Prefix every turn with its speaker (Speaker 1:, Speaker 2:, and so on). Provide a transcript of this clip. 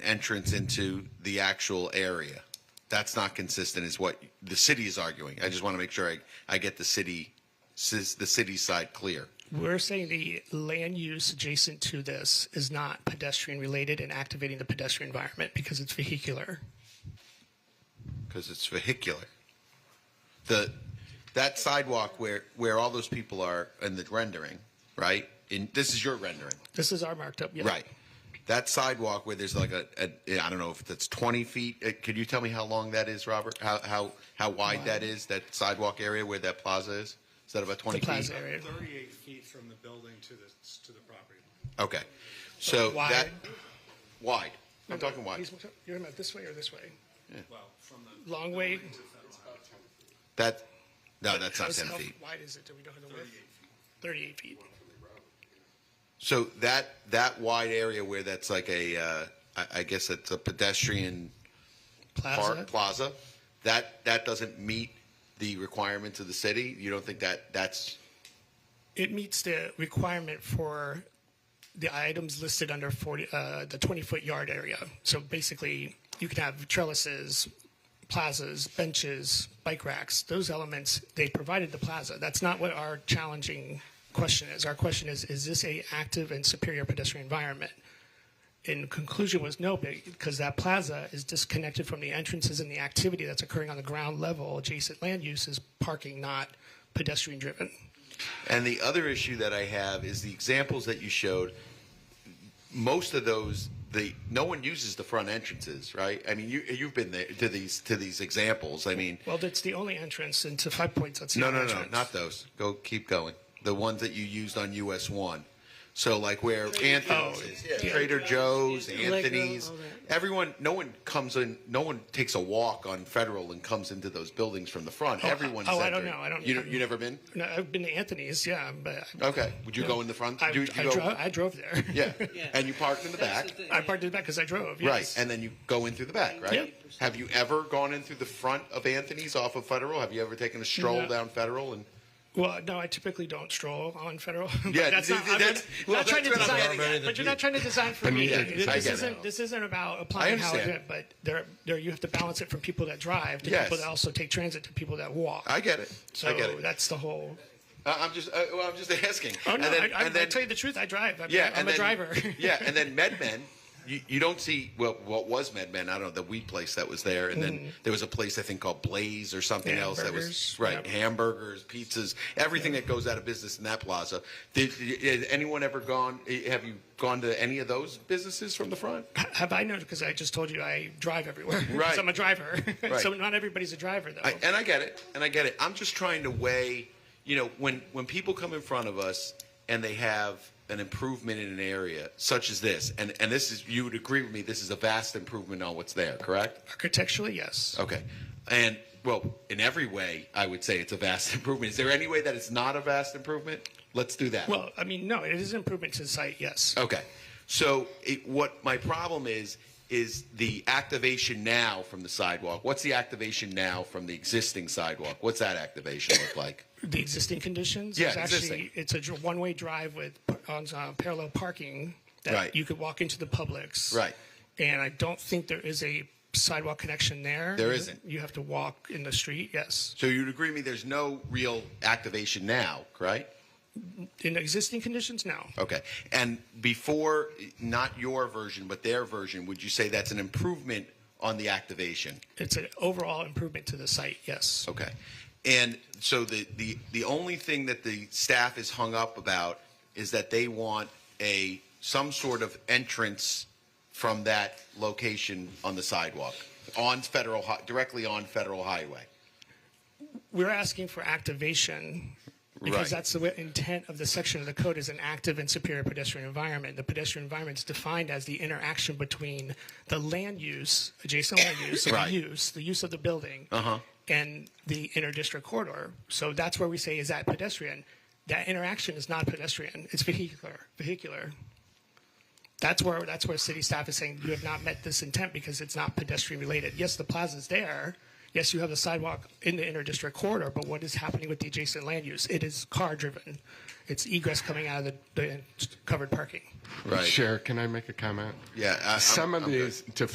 Speaker 1: entrance into the actual area. That's not consistent, is what the city is arguing. I just want to make sure I, I get the city, sis- the city side clear.
Speaker 2: We're saying the land use adjacent to this is not pedestrian related and activating the pedestrian environment because it's vehicular.
Speaker 1: because it's vehicular. The that sidewalk where where all those people are in the rendering, right? In this is your rendering,
Speaker 2: This is our marked up. yeah.
Speaker 1: right? That sidewalk where there's like a, a I don't know if that's 20 feet. Uh, Could you tell me how long that is, Robert? How how how wide that is? That sidewalk area where that plaza is? Is that about 20
Speaker 2: The plaza
Speaker 1: feet?
Speaker 2: area.
Speaker 3: 38 feet from the building to the, to the property line.
Speaker 1: Okay, so
Speaker 2: Wide.
Speaker 1: that wide. I'm talking wide.
Speaker 2: He's- You're talking about this way or this way?
Speaker 3: Well, from the.
Speaker 2: Long way.
Speaker 3: building to the fence line.
Speaker 1: That no, that's not
Speaker 2: How's-
Speaker 1: 10
Speaker 2: how
Speaker 1: feet.
Speaker 2: Wide is it? Do we know the width? Thirty-eight feet.
Speaker 1: So that that wide area where that's like a uh, I, I guess it's a pedestrian
Speaker 2: Plaza.
Speaker 1: Park Plaza, that, that doesn't meet the requirements of the city? You don't think that, that's,
Speaker 2: It meets the requirement for the items listed under 40, uh, the 20 foot yard area. So basically, you can have trellises, plazas, benches, bike racks, those elements, they provided the plaza. That's not what our challenging question is. Our question is is this a active and superior pedestrian environment? And conclusion was no, because that plaza is disconnected from the entrances and the activity that's occurring on the ground level. Adjacent land use is parking, not pedestrian driven.
Speaker 1: and the other issue that I have is the examples that you showed, most of those, the, no one uses the front entrances, right? I mean, you, you've been there to these, to these examples, I mean,
Speaker 2: Well, that's the only entrance into Five Points. That's the
Speaker 1: no,
Speaker 2: only
Speaker 1: no, no,
Speaker 2: entrance.
Speaker 1: not those, go, keep going, the ones that you used on US one. So like where Anthony's,
Speaker 2: Oh, yeah.
Speaker 1: Trader Joe's,
Speaker 4: Allegro,
Speaker 1: Anthony's,
Speaker 4: all that.
Speaker 1: everyone, no one comes in, no one takes a walk on Federal and comes into those buildings from the front. Everyone's
Speaker 2: oh, I don't
Speaker 1: entering.
Speaker 2: know. I don't-
Speaker 1: You, you never been?
Speaker 2: No, I've been to Anthony's, yeah, but
Speaker 1: Okay. Would you go in the front?
Speaker 2: I,
Speaker 1: Do you- do
Speaker 2: I,
Speaker 1: you go-
Speaker 2: drove, I drove there.
Speaker 1: Yeah.
Speaker 4: Yeah.
Speaker 1: And you parked in the
Speaker 4: That's
Speaker 1: back.
Speaker 4: the thing.
Speaker 2: I parked in the back because I drove.
Speaker 1: Right.
Speaker 2: Yes.
Speaker 1: And then you go in through the back, right?
Speaker 2: Yep.
Speaker 1: Have you ever gone in through the front of Anthony's off of Federal? Have you ever taken a stroll
Speaker 2: No.
Speaker 1: down Federal and
Speaker 2: well, no, I typically don't stroll on Federal. but
Speaker 1: Yeah,
Speaker 2: that's
Speaker 1: th-
Speaker 2: not.
Speaker 1: th-
Speaker 2: I'm
Speaker 1: that's-
Speaker 2: not-
Speaker 1: well,
Speaker 2: not trying to
Speaker 1: that's what I'm
Speaker 2: design.
Speaker 1: getting at.
Speaker 2: But you're not trying to design for me.
Speaker 1: Yeah, I
Speaker 2: This
Speaker 1: get it.
Speaker 2: isn't. This isn't about applying how I do
Speaker 1: understand.
Speaker 2: it. But there, there, you have to balance it from people that drive to
Speaker 1: Yes.
Speaker 2: people that also take transit to people that walk.
Speaker 1: I get it.
Speaker 2: so
Speaker 1: I get it.
Speaker 2: that's the whole.
Speaker 1: I- I'm just, I, well, I'm just asking.
Speaker 2: Oh
Speaker 1: and
Speaker 2: no!
Speaker 1: then,
Speaker 2: I, I,
Speaker 1: and then-
Speaker 2: I tell you the truth, I drive. I mean,
Speaker 1: Yeah,
Speaker 2: I'm
Speaker 1: and
Speaker 2: a
Speaker 1: then,
Speaker 2: driver.
Speaker 1: yeah, and then MedMen, you, you don't see well, what was MedMen? I don't know the wheat place that was there, and
Speaker 2: Mm-hmm.
Speaker 1: then there was a place I think called Blaze or something
Speaker 2: Yeah,
Speaker 1: else that was
Speaker 2: burgers,
Speaker 1: right
Speaker 2: yep.
Speaker 1: hamburgers, pizzas, everything that goes out of business in that plaza. Did, did anyone ever gone? Have you gone to any of those businesses from the front?
Speaker 2: Have I known? Because I just told you I drive everywhere. 'Cause
Speaker 1: Right.
Speaker 2: I'm a driver.
Speaker 1: Right.
Speaker 2: so not everybody's a driver, though.
Speaker 1: I, and I get it, and I get it. I'm just trying to weigh, you know, when when people come in front of us and they have an improvement in an area such as this, and and this is you would agree with me, this is a vast improvement on what's there, correct?
Speaker 2: Architecturally, yes.
Speaker 1: Okay, and well, in every way, I would say it's a vast improvement. Is there any way that it's not a vast improvement? Let's do that.
Speaker 2: Well, I mean, no, it is an improvement to the site, yes.
Speaker 1: Okay. So it, what my problem is is the activation now from the sidewalk. What's the activation now from the existing sidewalk? What's that activation look like?
Speaker 2: The existing conditions
Speaker 1: Yeah,
Speaker 2: is actually
Speaker 1: existing.
Speaker 2: it's a dr- one-way drive with p- on uh, parallel parking that
Speaker 1: Right.
Speaker 2: you could walk into the Publix.
Speaker 1: Right.
Speaker 2: And I don't think there is a sidewalk connection there.
Speaker 1: There isn't.
Speaker 2: You have to walk in the street. Yes.
Speaker 1: So you'd agree with me there's no real activation now, right?
Speaker 2: In existing conditions, no.
Speaker 1: Okay. And before, not your version, but their version, would you say that's an improvement on the activation?
Speaker 2: It's an overall improvement to the site. Yes.
Speaker 1: Okay. And so the, the, the only thing that the staff is hung up about is that they want a, some sort of entrance from that location on the sidewalk, on federal, hi- directly on federal highway.
Speaker 2: we're asking for activation because
Speaker 1: Right.
Speaker 2: that's the wi- intent of the section of the code is an active and superior pedestrian environment. The pedestrian environment is defined as the interaction between the land use, adjacent land use, so
Speaker 1: Right. Uh-huh.
Speaker 2: the use, the use of the building, and the interdistrict corridor. So that's where we say is that pedestrian. That interaction is not pedestrian; it's vehicular. Vehicular. That's where that's where city staff is saying you have not met this intent because it's not pedestrian related. Yes, the plaza's there. Yes, you have the sidewalk in the interdistrict corridor, but what is happening with the adjacent land use? It is car driven. It's egress coming out of the, the covered parking.
Speaker 1: Right.
Speaker 4: Chair, can I make a comment?
Speaker 1: Yeah, I- I'm-
Speaker 4: Some of
Speaker 1: I'm good.
Speaker 4: these, to